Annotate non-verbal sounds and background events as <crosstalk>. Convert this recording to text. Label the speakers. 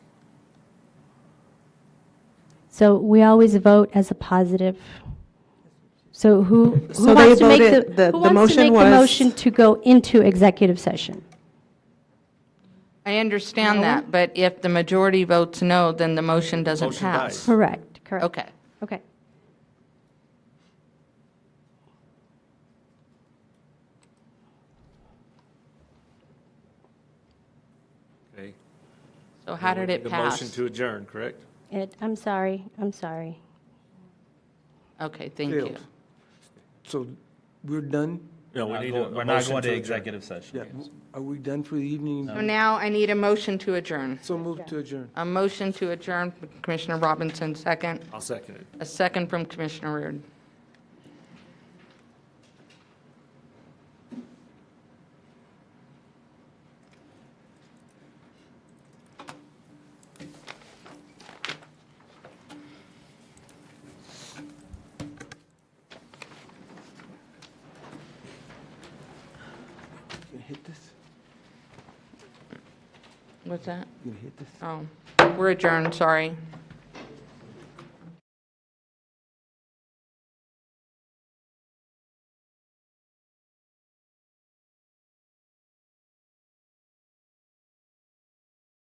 Speaker 1: So we always vote as a positive. So
Speaker 2: <laughs>
Speaker 1: who,
Speaker 2: So
Speaker 1: who
Speaker 2: they
Speaker 1: wants to make
Speaker 2: voted- the-
Speaker 1: the,
Speaker 2: the
Speaker 1: who wants to
Speaker 2: motion
Speaker 1: make the
Speaker 2: was-
Speaker 1: motion to go into executive session?
Speaker 3: I understand that, but if the majority votes no, then the motion doesn't
Speaker 4: Motion
Speaker 3: pass.
Speaker 1: Correct, correct.
Speaker 3: <laughs> Okay.
Speaker 1: Okay.
Speaker 4: Okay.
Speaker 3: So how did it
Speaker 4: The motion
Speaker 3: pass?
Speaker 4: to adjourn, correct?
Speaker 1: It, I'm sorry, I'm sorry.
Speaker 3: Okay, thank you.
Speaker 5: Failed. So we're done?
Speaker 4: No, we need a.
Speaker 6: We're
Speaker 4: a
Speaker 6: not
Speaker 4: motion
Speaker 6: going to
Speaker 4: adjourn.
Speaker 6: executive session.
Speaker 5: Yeah. Are we done for the evening?
Speaker 3: So now I need a motion to adjourn.
Speaker 5: So move to adjourn.
Speaker 3: A motion to adjourn, Commissioner Robinson, second.
Speaker 4: I'll second it.
Speaker 3: A second from Commissioner Reard.
Speaker 5: You gonna hit this?
Speaker 3: What's that?
Speaker 5: You gonna hit this?
Speaker 3: Oh, we're adjourned, sorry.